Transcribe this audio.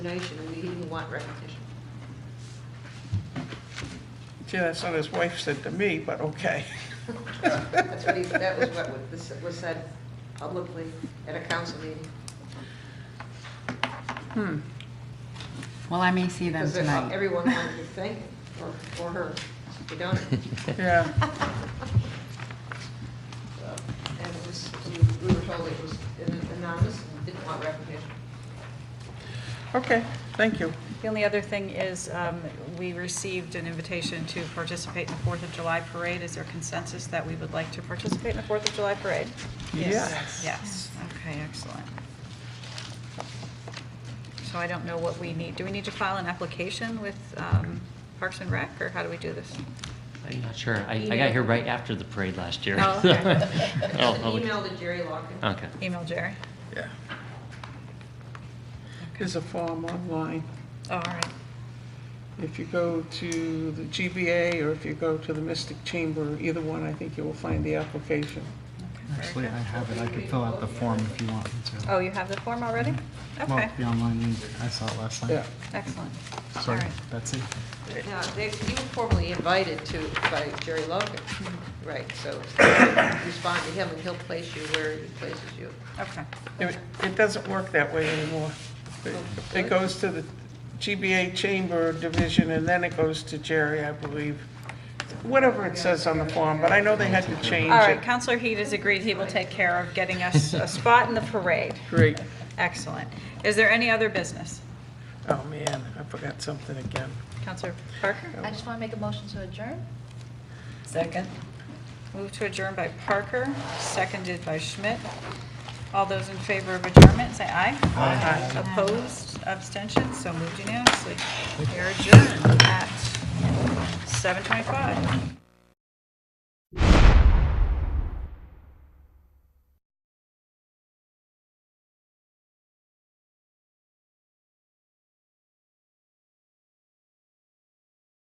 donation, and we didn't want recognition. Gee, that's what his wife said to me, but okay. That's what he, that was what was- this was said publicly at a council meeting. Hmm. Well, I may see them Because tonight. everyone wanted to thank him or, or her, we don't. Yeah, And it was, we- we were told it was anonymous and didn't want recognition. okay, thank you. The only other thing is, um, we received an invitation to participate in the Fourth of July Parade. Is there consensus that we would like to participate in the Fourth of July Parade? Yes. Yes, okay, excellent. So I don't know what we need, do we need to file an application with um, Parks and Rec, or how do we do this? I'm not sure. I, I got here right after the parade last year. Oh, okay. Oh, An oh, we- email to Jerry Locken. Okay. Email Jerry? Yeah. Okay. There's a form online. Oh, All right, If you go to the GBA or if you go to the Mystic Chamber, either one, I think you will find the application. okay, very Actually, I good. have it. I could fill out the form if you want me to. Oh, you have the form already? Well, Okay, the online link. I saw it last time. Yeah. excellent. All Sorry, right. Betsy. Now, they, you were formally invited to, by Jerry Logan, right, so respond to him and he'll place you where he places you. Okay, It it doesn't work that way anymore. It- It goes to the GBA Chamber Division, and then it goes to Jerry, I believe. Whatever it says on the form, but I know they had to change all right, it. Counselor Heed has agreed he will take care of getting us a spot in the parade. Great. Excellent. Is there any other business? Oh, man, I forgot something again. Counselor Parker? I just want to make a motion to adjourn. Second. Moved to adjourn by Parker, seconded by Schmidt. All those in favor of adjournment, say aye. Aye. Opposed, abstentions, so moved unanimously. We are adjourned at 7:25.